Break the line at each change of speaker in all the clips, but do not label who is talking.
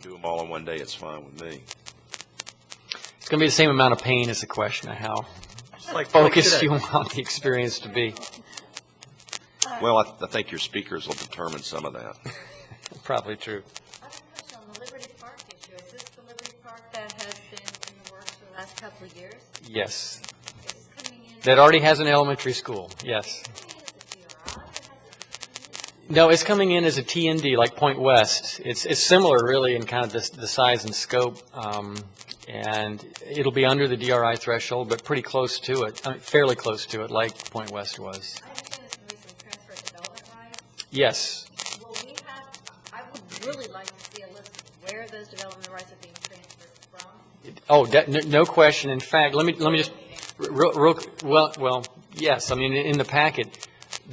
do them all in one day, it's fine with me.
It's going to be the same amount of pain as the question of how
Like
focused
today.
you want the experience to be,
Well, I, I think your speakers will determine some of that.
probably true.
I have a question on the Liberty Park issue. Is this the Liberty Park that has been in the works for the last couple of years?
Yes,
It's coming in.
that already has an elementary school, yes.
It's coming in as a DRI, or has it-
No, it's coming in as a TND, like Point West. It's, it's similar, really, in kind of the, the size and scope, um, and it'll be under the DRI threshold, but pretty close to it, I mean, fairly close to it, like Point West was.
I understand there's going to be some transfer of development rights.
Yes,
Will we have, I would really like to see a list of where those development rights are being transferred from.
Oh, de- no- no question. In fact, let me, let me just, real, real, well, well, yes, I mean, in the packet,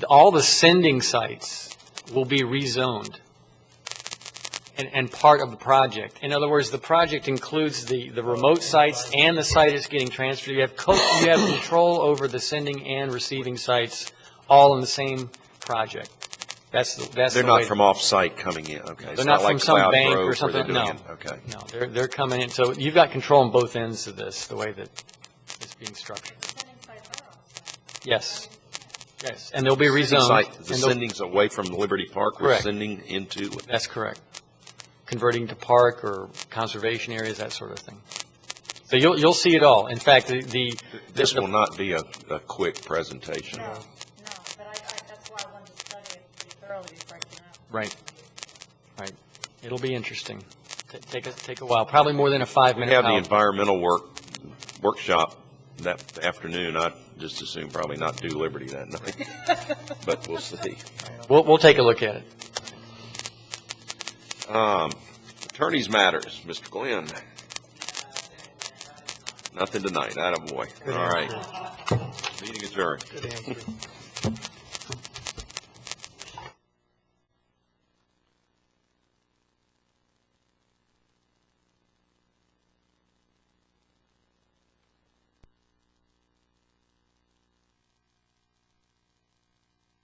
all the sending sites will be rezoned and, and part of the project. In other words, the project includes the, the remote sites and the site that's getting transferred. You have, co- you have control over the sending and receiving sites all in the same project. That's, the that's the
They're
way.
not from off-site coming in, okay? It's
They're not
like
from some
Cloud
bank
Grove
or
where they're
something, no.
doing it, Okay.
No, they're, they're coming in, so you've got control on both ends of this, the way that it's being structured. Yes, yes, and they'll be
Sending
rezoned.
site-
and
The
they'll-
sending's away from Liberty Park, we're
Correct.
sending into it.
That's correct. Converting to park or conservation areas, that sort of thing. So you'll, you'll see it all. In fact, the, the.
This
the-
will not be a, a quick presentation.
No, no, but I, I, that's why I wanted to study it pretty thoroughly before I came out.
Right, right. It'll be interesting. Ta- Take, a take a while, probably more than a
We
five-minute
have the
PowerPoint.
environmental work, workshop that afternoon, I just assume probably not do Liberty that night, but we'll see.
We'll, we'll take a look at it.
Um, Attorneys matters, Mr. Glenn. Nothing tonight, attaboy. All right. Meeting adjourned.